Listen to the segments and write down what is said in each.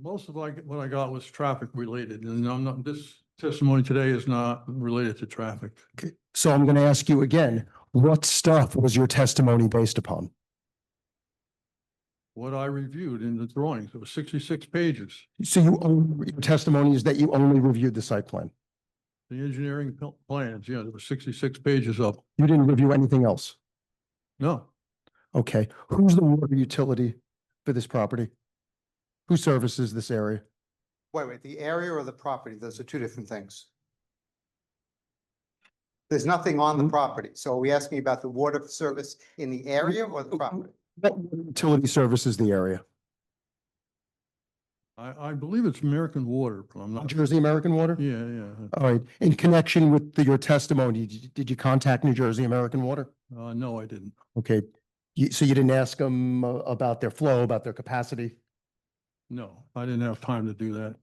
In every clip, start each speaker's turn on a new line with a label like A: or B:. A: most of like, what I got was traffic related and I'm not, this testimony today is not related to traffic.
B: So I'm going to ask you again, what stuff was your testimony based upon?
A: What I reviewed in the drawings, it was sixty-six pages,
B: So you, own- your testimony is that you only reviewed the site plan.
A: the engineering pl- plans, yeah, there were sixty-six pages of, 'em.
B: You didn't review anything else.
A: no,
B: Okay, who's the water utility for this property? Who services this area?
C: Wait, wait, the area or the property? Those are two different things. There's nothing on
A: Mm-hmm.
C: the
B: Mm.
C: property. So are we asking about the water service in the area or
A: Mm-hmm.
C: the
B: Mm.
C: property?
B: What water utility services the area?
A: I, I believe it's American Water, but I'm
B: New
A: not,
B: Jersey American Water?
A: yeah, yeah.
B: All right, in connection with the- your testimony, did you- did you contact New Jersey American Water?
A: Uh, no, I didn't.
B: Okay, you- so you didn't ask them about their flow, about their capacity?
A: No, I didn't have time to do that.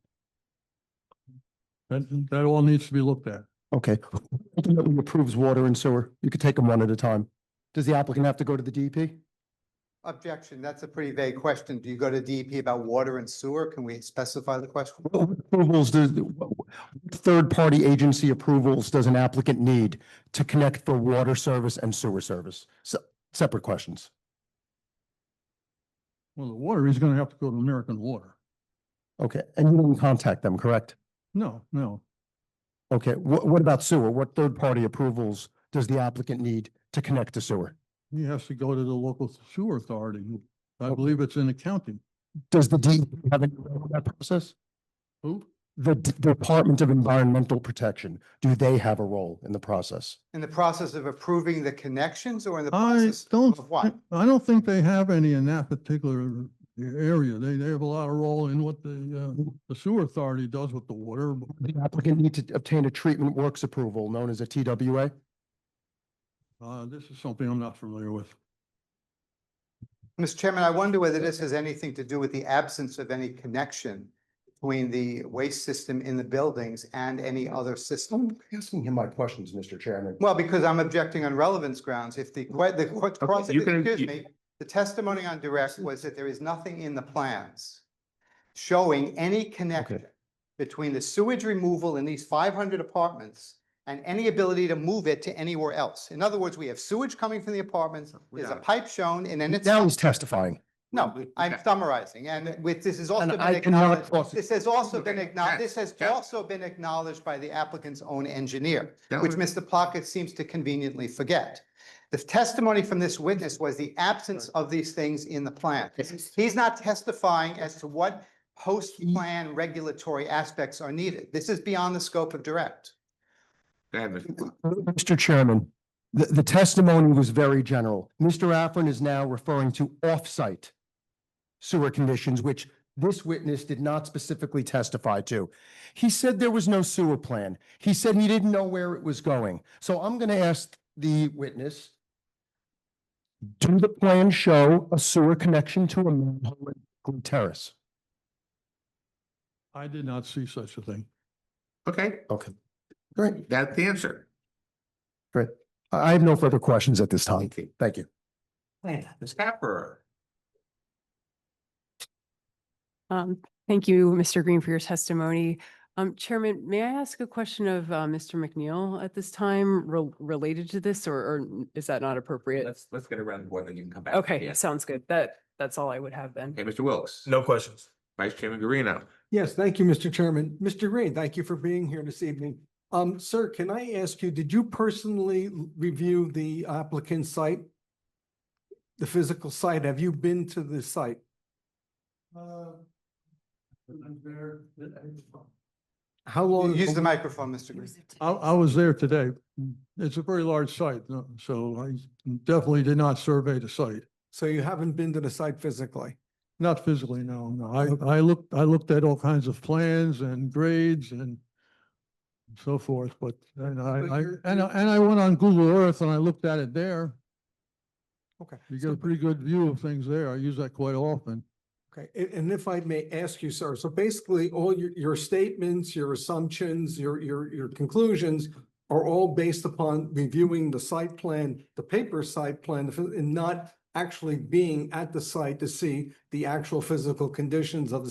A: That, that all needs to be looked at.
B: Okay, who ultimately approves water and sewer? You could take them one at a time. Does the applicant have to go to the E DEP?
C: Objection, that's a pretty vague question. Do you go to DEP about water and sewer? Can we specify the question?
B: What Approvals, does- what third-party agency approvals does an applicant need to connect for water service and sewer service? Se- Separate questions.
A: Well, the water, he's gonna have to go to American Water.
B: Okay, and you didn't contact them, correct?
A: No, no,
B: Okay, what, what about sewer? What third-party approvals does the applicant need to connect to sewer?
A: he has to go to the local sewer authority. I believe it's in accounting.
B: Does the DEP have any, role in that process?
A: Who?
B: The D- Department of Environmental Protection, do they have a role in the process?
C: In the process of approving the connections or in the
A: I
C: process
A: don't,
C: of what?
A: thi- I don't think they have any in that particular area. They, they have a lot of role in what the, uh, the sewer authority does with the water.
B: The applicant need to obtain a treatment works approval known as a TWA?
A: Uh, this is something I'm not familiar with.
C: Mr. Chairman, I wonder whether this has anything to do with the absence of any connection between the waste system in the buildings and any other system?
B: Asking him my questions, Mr. Chairman.
C: Well, because I'm objecting on relevance grounds. If the, que- the, what, cross-
D: you can-
C: excuse
D: you-
C: me, the testimony on direct was that there is nothing in the plans showing any connection between the sewage removal in these five hundred apartments and any ability to move it to anywhere else. In other words, we have sewage coming from the apartments, there's a
D: Without-
C: pipe shown, and then it's.
B: Now he's testifying.
C: No, I'm summarizing, and with, this has also
B: And
C: been
B: I cannot
C: acknowledged,
B: cross it.
C: this has also been
D: Okay,
C: acknowledged,
D: yes,
C: this has
D: yes.
C: also been acknowledged by the applicant's own engineer,
D: That
C: which
D: was-
C: Mr. Plunkett seems to conveniently forget. The testimony from this witness was the absence of these things in the plan. He's not testifying as to what post-plan regulatory aspects are needed. This is beyond the scope of direct.
D: David,
B: Mr. Chairman, the, the testimony was very general. Mr. Affron is now referring to off-site sewer conditions, which this witness did not specifically testify to. He said there was no sewer plan. He said he didn't know where it was going. So I'm going to ask the witness, do the plans show a sewer connection to a manhole and Berkeley terrace?
A: I did not see such a thing.
D: okay,
B: Okay, great.
D: that's the answer.
B: I I have no further questions at this time.
D: Thank you.
B: Thank you.
D: Ms. Capper,
E: Um, Thank you, Mr. Green, for your testimony. Um, Chairman, may I ask a question of uh, Mr. McNeil at this time rel- related to this, or- or n- is that not appropriate?
D: let's, let's get around the board and you can come back.
E: Okay,
D: Yes.
E: sounds good. That, that's all I would have then.
D: Okay, Mr. Wilks.
F: No questions.
D: Vice Chairman Garino.
G: Yes, thank you, Mr. Chairman. Mr. Green, thank you for being here this evening. Um, sir, can I ask you, did you personally l- review the applicant's site? The physical site? Have you been to the site?
C: Uh,
G: How long?
C: Use the microphone, Mr. Green.
A: I, I was there today. It's a very large site, no- so I definitely did not survey the site.
G: So you haven't been to the site physically?
A: Not physically, no, no. I, I looked, I looked at all kinds of plans and grades and so forth, but, and
G: But
A: I, I,
G: you're-
A: and I, and I went on Google Earth and I looked at it there.
G: Okay.
A: You get a pretty good view of things there. I use that quite often.
G: Okay, a- and if I may ask you, sir, so basically all your, your statements, your assumptions, your, your, your conclusions are all based upon reviewing the site plan, the paper site plan, the phys- and not actually being at the site to see the actual physical conditions of the